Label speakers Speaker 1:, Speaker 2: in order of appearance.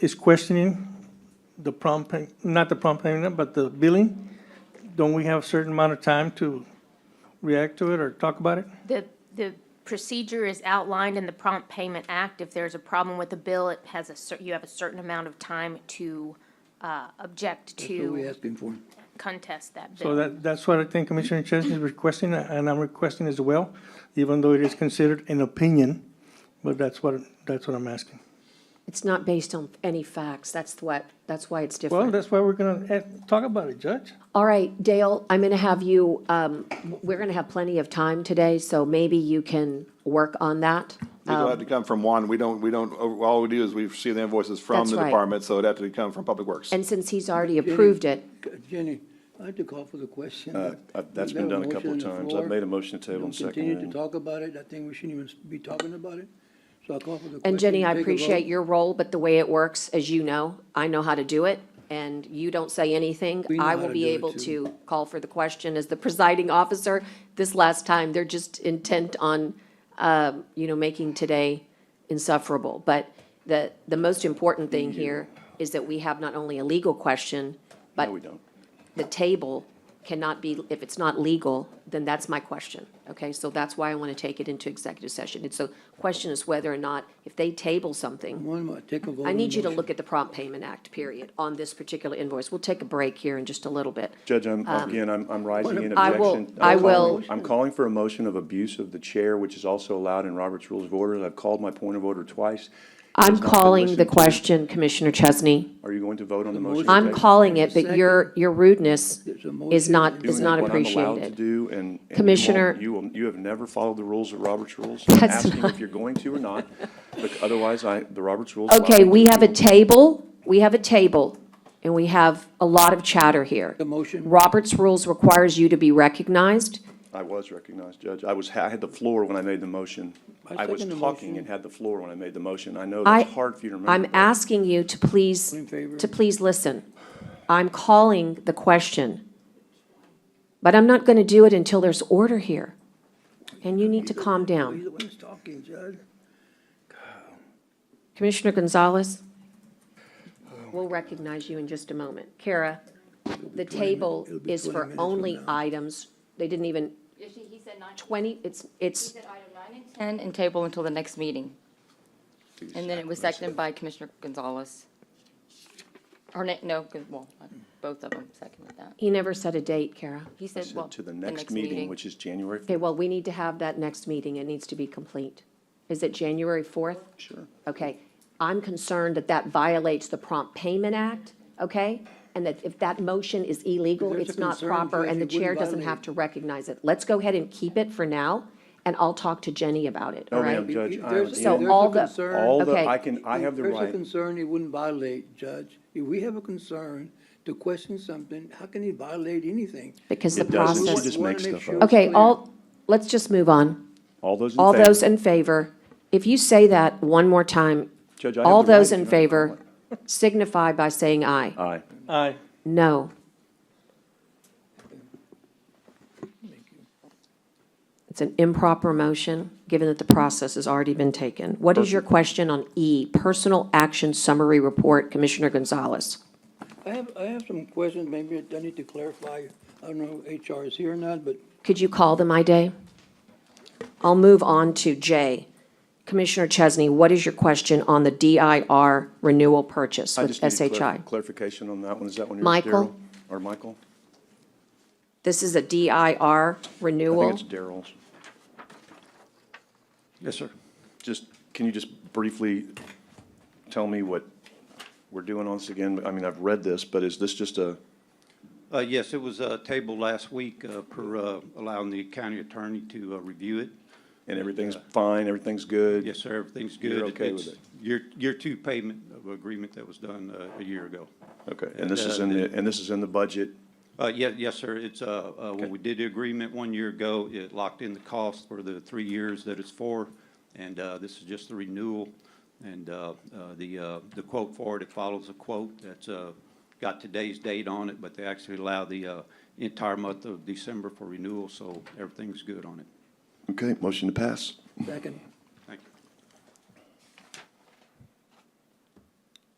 Speaker 1: is questioning the prompt, pay- not the prompt payment, but the billing, don't we have a certain amount of time to react to it or talk about it?
Speaker 2: The, the procedure is outlined in the Prompt Payment Act. If there's a problem with a bill, it has a cer, you have a certain amount of time to, uh, object
Speaker 3: That's what we
Speaker 2: to
Speaker 3: asking for.
Speaker 2: contest that
Speaker 1: So
Speaker 2: bill.
Speaker 1: that, that's what I think Commissioner Chesney is requesting, and I'm requesting as well, even though it is considered an opinion, but that's what, that's what I'm asking.
Speaker 4: It's not based on any facts. That's what, that's why it's
Speaker 1: Well,
Speaker 4: different.
Speaker 1: that's why we're gonna eh, talk about it, Judge.
Speaker 4: All right, Dale, I'm going to have you, um, w- we're going to have plenty of time today, so maybe you can work on that.
Speaker 5: It'll
Speaker 4: Um,
Speaker 5: have to come from one, we don't, we don't, all we do is we receive the invoices from
Speaker 4: That's
Speaker 5: the
Speaker 4: right.
Speaker 5: department, so it'd have to come from Public Works.
Speaker 4: And since he's already approved it,
Speaker 3: Jenny, I'd like to call for the question.
Speaker 6: Uh, I've- that's been done a couple of times. I've made a motion to table and
Speaker 3: Continue to
Speaker 6: seconded.
Speaker 3: talk about it. I think we shouldn't even be talking about it. So I call for the question.
Speaker 4: and Jenny, I
Speaker 3: take a vote.
Speaker 4: appreciate your role, but the way it works, as you know, I know how to do it, and you don't say anything.
Speaker 3: We know
Speaker 4: I
Speaker 3: how
Speaker 4: will
Speaker 3: to
Speaker 4: be
Speaker 3: do it,
Speaker 4: able
Speaker 3: too.
Speaker 4: to call for the question as the presiding officer. This last time, they're just intent on, uh, you know, making today insufferable. But the, the most important thing here is that we have not only a legal question, but
Speaker 6: No, we don't.
Speaker 4: the table cannot be, if it's not legal, then that's my question, okay? So that's why I want to take it into executive session. It's a question is whether or not, if they table something,
Speaker 3: One more, take a vote.
Speaker 4: I
Speaker 3: on
Speaker 4: need
Speaker 3: the
Speaker 4: you to
Speaker 3: motion.
Speaker 4: look at the Prompt Payment Act, period, on this particular invoice. We'll take a break here in just a little bit.
Speaker 6: Judge, I'm,
Speaker 7: Um,
Speaker 6: again, I'm, I'm rising in
Speaker 4: I will-
Speaker 6: objection.
Speaker 4: I
Speaker 6: I'm calling-
Speaker 4: will-
Speaker 6: I'm calling for a motion of abuse of the chair, which is also allowed in Robert's Rules of Order. I've called my point of order twice.
Speaker 4: I'm
Speaker 6: It's not been
Speaker 4: calling
Speaker 6: listened
Speaker 4: the
Speaker 6: to.
Speaker 4: question, Commissioner Chesney.
Speaker 6: Are you going to vote on the
Speaker 3: motion-
Speaker 6: motion?
Speaker 4: I'm
Speaker 6: today?
Speaker 4: calling it, but your, your rudeness
Speaker 3: There's a
Speaker 4: is
Speaker 3: motion.
Speaker 4: not,
Speaker 3: Doing
Speaker 4: is not
Speaker 6: Doing What I'm allowed to
Speaker 4: appreciated.
Speaker 6: do and. and you won't-
Speaker 4: Commissioner-
Speaker 6: You will, you have never followed the rules of Robert's Rules. I'm
Speaker 4: That's
Speaker 6: asking
Speaker 4: not-
Speaker 6: if you're going to or not, but otherwise I, the Robert's Rules. allow
Speaker 4: Okay,
Speaker 6: me
Speaker 4: we
Speaker 6: to
Speaker 4: have
Speaker 6: do
Speaker 4: a table, we have a table, and we have a lot of chatter here.
Speaker 3: The motion.
Speaker 4: Robert's Rules requires you to be recognized.
Speaker 6: I was recognized, Judge. I was, I had the floor when I made the motion.
Speaker 3: I
Speaker 6: I was
Speaker 3: second the motion.
Speaker 6: talking and had the floor when I made the motion. I know
Speaker 4: I-
Speaker 6: that's hard for you to remember.
Speaker 4: I'm
Speaker 6: but-
Speaker 4: asking you to please,
Speaker 3: in favor.
Speaker 4: to please listen. I'm calling the question. But I'm not going to do it until there's order here. And you need to calm
Speaker 3: He's
Speaker 4: down.
Speaker 3: the one who's talking, Judge.
Speaker 4: Commissioner Gonzalez, we'll recognize you in just a moment. Kara, the table
Speaker 3: it'll be
Speaker 4: is
Speaker 3: 20
Speaker 4: for
Speaker 3: minutes from
Speaker 4: only
Speaker 3: now.
Speaker 4: items, they didn't even,
Speaker 7: He said nine,
Speaker 4: 20, it's,
Speaker 7: he
Speaker 4: it's,
Speaker 7: said item nine and 10 and table until the next meeting. And then it was seconded by Commissioner Gonzalez. Or, na- no, good- well, both of them seconded that.
Speaker 4: he never set a date, Kara.
Speaker 7: He
Speaker 6: I
Speaker 7: said, well,
Speaker 6: said to the next meeting, which is January.
Speaker 4: Okay, well, we need to have that next meeting. It needs to be complete. Is it January 4th?
Speaker 6: Sure.
Speaker 4: Okay, I'm concerned that that violates the Prompt Payment Act, okay? And that if that motion is illegal,
Speaker 3: If there's
Speaker 4: it's
Speaker 3: a
Speaker 4: not
Speaker 3: concern,
Speaker 4: proper,
Speaker 3: Judge,
Speaker 4: and the
Speaker 3: it wouldn't
Speaker 4: chair doesn't have
Speaker 3: violate.
Speaker 4: to recognize it. Let's go ahead and keep it for now, and I'll talk to Jenny about it, all
Speaker 6: No,
Speaker 4: right?
Speaker 6: Oh, ma'am, Judge,
Speaker 3: If
Speaker 6: I
Speaker 3: there's-
Speaker 6: am
Speaker 3: if
Speaker 4: So
Speaker 3: there's
Speaker 6: in.
Speaker 3: a
Speaker 4: all the-
Speaker 3: concern-
Speaker 6: All the,
Speaker 4: Okay.
Speaker 6: I can, I have the
Speaker 3: If there's a
Speaker 6: right.
Speaker 3: concern, it wouldn't violate, Judge. If we have a concern to question something, how can he violate anything?
Speaker 4: Because the
Speaker 6: It doesn't, she
Speaker 4: process.
Speaker 6: just makes stuff up.
Speaker 4: Okay, all, let's just move on.
Speaker 6: All those in
Speaker 4: All
Speaker 6: favor?
Speaker 4: those in favor, if you say that one more time,
Speaker 6: Judge, I have
Speaker 4: all
Speaker 6: the right
Speaker 4: those
Speaker 6: to
Speaker 4: in
Speaker 6: not
Speaker 4: favor
Speaker 6: comment.
Speaker 4: signify by saying aye.
Speaker 6: Aye.
Speaker 1: Aye.
Speaker 4: No. It's an improper motion, given that the process has already been taken. What is your question on E, Personal Action Summary Report, Commissioner Gonzalez?
Speaker 3: I have, I have some questions, maybe I need to clarify. I don't know if HR is here or not, but
Speaker 4: Could you call them, Ida? I'll move on to J. Commissioner Chesney, what is your question on the DIR renewal purchase
Speaker 6: I
Speaker 4: with
Speaker 6: just need clar-
Speaker 4: SHI?
Speaker 6: clarification on that one. Is that one yours,
Speaker 4: Michael?
Speaker 6: Daryl? Or Michael?
Speaker 4: This is a DIR
Speaker 6: I
Speaker 4: renewal?
Speaker 6: think it's Daryl's. Yes, sir. Just, can you just briefly tell me what we're doing on this again? I mean, I've read this, but is this just a,
Speaker 8: Uh, Yes, it was uh, tabled last week uh, per uh, allowing the county attorney to uh, review it.
Speaker 6: and everything's fine, everything's good?
Speaker 8: Yes, sir, everything's good.
Speaker 6: You're okay with
Speaker 8: It's
Speaker 6: it?
Speaker 8: Year, year two payment of agreement that was done uh, a year ago.
Speaker 6: Okay, and this is in the, and this is in the budget?
Speaker 8: Uh, ye- Yes, sir, it's, uh, uh, when we did the agreement one year ago, it locked in the cost for the three years that it's for, and uh, this is just the renewal. And uh, uh, the, uh, the quote for it, it follows a quote that's uh, got today's date on it, but they actually allow the uh, entire month of December for renewal, so everything's good on it.
Speaker 6: Okay, motion to pass.
Speaker 3: second.